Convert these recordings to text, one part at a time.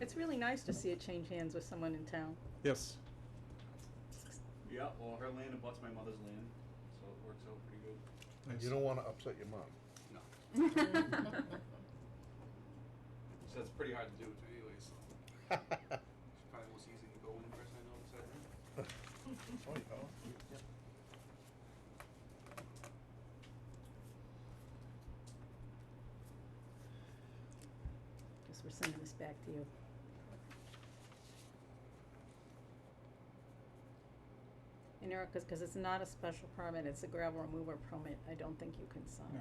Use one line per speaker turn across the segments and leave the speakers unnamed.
it's really nice to see it change hands with someone in town.
Yes.
Yeah, well, her land abuts my mother's land, so it works out pretty good.
Nice.
You don't wanna upset your mom.
No. So that's pretty hard to do it anyway, so it's probably the most easy to go in person I know beside her.
Oh, yeah.
Guess we're sending this back to you. And Erica's, because it's not a special permit, it's a gravel remover permit, I don't think you can sign
No.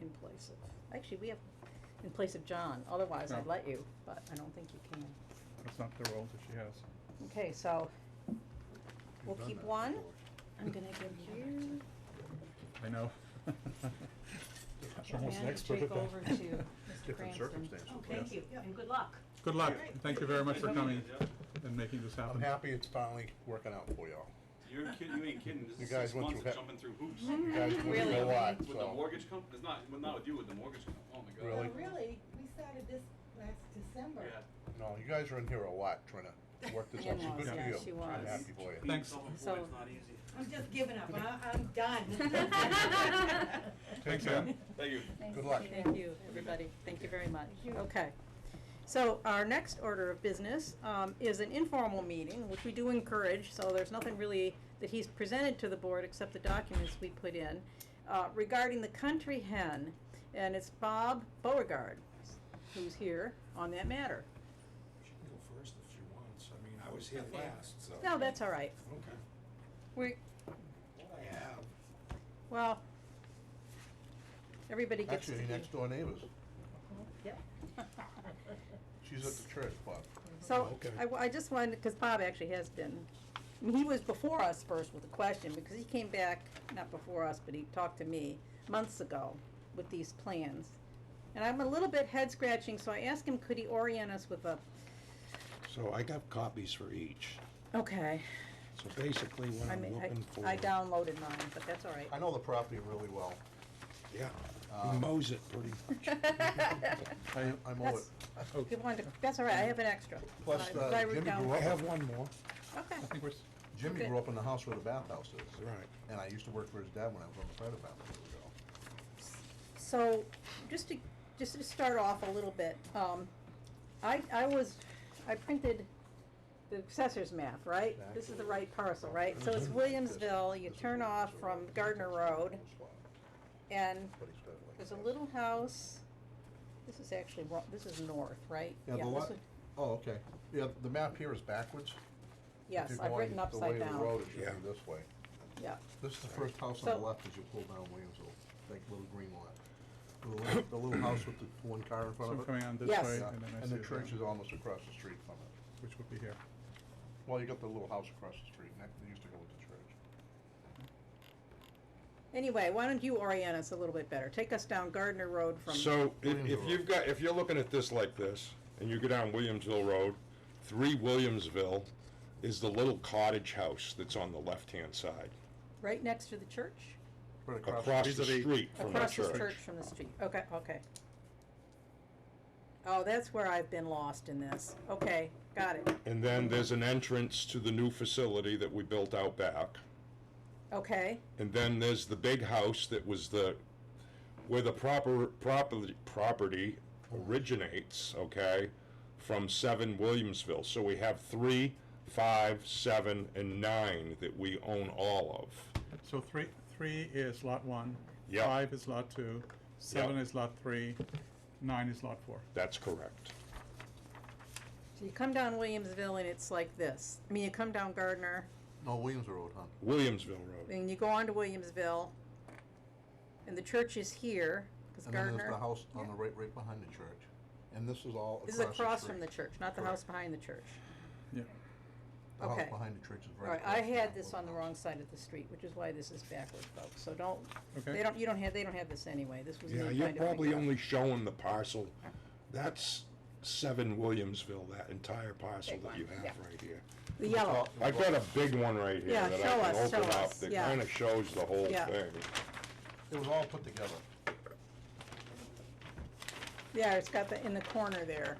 in place of, actually, we have, in place of John, otherwise I'd
No.
let you, but I don't think you can.
That's not the role that she has.
Okay, so
We've
we'll
done
keep
that
one.
before.
I'm gonna give you,
I know. She's almost an
Amanda,
expert at
take
that.
over to Mr.
Different circumstances.
Oh,
yes.
thank you, and good luck.
Good luck. Thank you very much for
Thank you.
coming
Yeah.
and making this happen.
I'm happy it's finally working out for y'all.
You're kidding, you ain't kidding, this
You
is
guys
six
went
months
through
of
hell.
jumping through hoops.
You guys wouldn't
Really?
know why,
With the
so.
mortgage company, it's not, well, not with you, with the mortgage company, oh my god.
Really?
No, really, we started this last December.
Yeah.
No, you guys are in here a lot trying to work this out, so good
In-laws,
for
yeah,
you.
she
I'm
was.
happy for you.
Being
Thanks.
self-employed
So-
is not easy.
I'm just giving up, I, I'm done.
Thanks,
care.
Ann.
Thank you.
Good luck.
thank you, everybody, thank you very much.
Thank you.
Okay. So our next order of business, um, is an informal meeting, which we do encourage, so there's nothing really that he's presented to the board except the documents we put in, uh, regarding the country hen, and it's Bob Beauregard who's here on that matter.
She can go first if she wants, I mean, I was here last, so.
No, that's all right,
Okay.
we,
What I have,
well, everybody gets to
Actually,
be-
next door neighbors.
Yep.
She's at the church, Bob.
So,
Okay.
I, w- I just wanted, because Bob actually has been, I mean, he was before us first with a question, because he came back, not before us, but he talked to me months ago with these plans. And I'm a little bit head scratching, so I asked him, could he orient us with a,
so I got copies for each,
okay,
so basically what
I
I'm
mean,
looking for.
I, I downloaded mine, but that's all right.
I know the property really well.
Yeah, he mows it pretty much.
I, I'm over it.
That's- He wanted to, that's all right, I have an extra.
Plus,
So I-
uh,
so I wrote
Jimmy
down-
grew
I
up-
have one more,
Okay,
I think we're, s-
Jimmy
Okay.
grew up in the house where the bathhouse is.
Right.
And I used to work for his dad when I was on the fire department years ago.
so, just to, just to start off a little bit, um, I, I was, I printed the assessor's map, right? This is the right parcel, right? So
Mhm.
it's Williamsville, you turn off from Gardner Road, and there's a little house, this is actually, wrong- this is north, right?
Yeah, the
this
lot,
would-
oh, okay. Yeah, the map here is backwards. If
Yes,
you're
I've
going
written upside
The way of the road,
down,
it should be this way.
yeah.
This is the first house on
So-
the left as you pull down Williamsville, like little green lot. The little, the little house with the one car in
so
front
I'm
of it.
coming on this
Yes.
way,
Yeah,
and then I
And
see
the
it
church
down,
is almost across the street from it.
which would be here.
Well, you got the little house across the street, next, they used to go with the church.
Anyway, why don't you orient us a little bit better? Take us down Gardner Road from.
So if, if
Williamsville.
you've got, if you're looking at this like this, and you go down Williamsville Road, three Williamsville is the little cottage house that's on the left-hand side,
Right next to the church?
Right
across the
vis-a-vis-
street from the
Across the church
church.
from the street, okay, okay. Oh, that's where I've been lost in this, okay, got it,
And then there's an entrance to the new facility that we built out back.
okay,
And then there's the big house that was the, where the proper, property, property originates, okay, from seven Williamsville. So we have three, five, seven, and nine that we own all of.
So three, three is lot one.
Yeah.
Five is lot two, seven
Yeah.
is lot three, nine is lot four.
That's correct.
so you come down Williamsville and it's like this, I mean, you come down Gardner,
No, Williams Road, huh?
Williamsville Road.
and you go on to Williamsville, and the church is here, cause
And then there's
Gardner,
the house on the right, right behind the church. And this is all
this is across
street.
from the church, not the house behind the church.
Yeah.
The house
okay.
behind the church is
All
right
right,
across
I
from
had
that
this
little
on the
house.
wrong side of the street, which is why this is backward, folks, so don't,
Okay.
they don't, you don't have, they don't have this anyway, this was me
Yeah,
trying
you're
to figure
probably
out.
only showing the parcel. That's seven Williamsville, that entire parcel
Big
that
one,
you have
yeah.
right here.
The yellow,
I've got a big one right here
Yeah,
that
show
I
us,
can
show
open up
us,
that
yeah.
kinda shows the whole
Yeah.
thing.
It was all put together.
yeah, it's got the, in the corner there.